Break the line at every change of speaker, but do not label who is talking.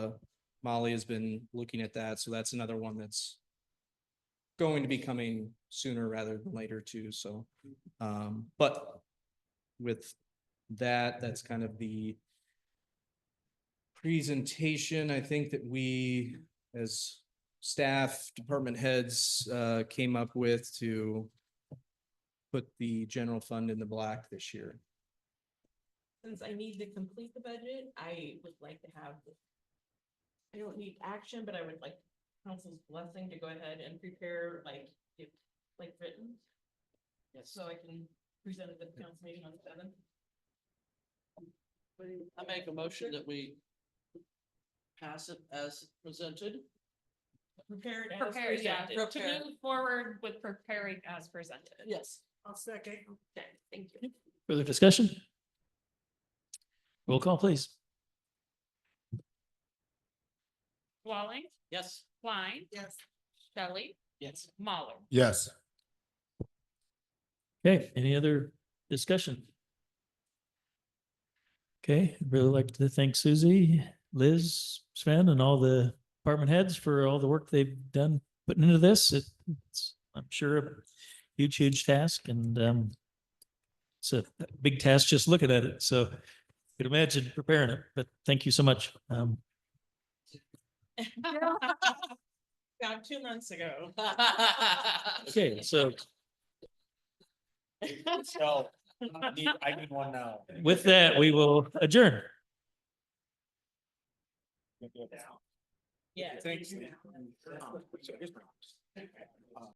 Molly has been looking at that, so that's another one that's going to be coming sooner rather than later too, so, um, but with that, that's kind of the presentation. I think that we, as staff, department heads, uh, came up with to put the general fund in the black this year.
Since I need to complete the budget, I would like to have. the- I don't need action, but I would like council's blessing to go ahead and prepare like, if, like written. So I can present it at the council meeting on the seventh.
I make a motion that we pass it as presented.
Prepare it as
Prepared, yeah,
presented.
to move forward with preparing as presented.
Yes.
I'll second.
Okay, thank you.
Further discussion? Roll call, please.
Walling,
Yes.
Klein,
Yes.
Shelley,
Yes.
Mahler.
Yes.
Okay, any other discussion? Okay, I'd really like to thank Susie, Liz, Sven, and all the department heads for all the work they've done putting into this. It- It's, I'm sure, a huge, huge task and um it's a big task just looking at it, so you could imagine preparing it, but thank you so much. Um,
About two months ago.
okay, so
So I need, I need one now.
with that, we will adjourn.
Yes.
Thank you.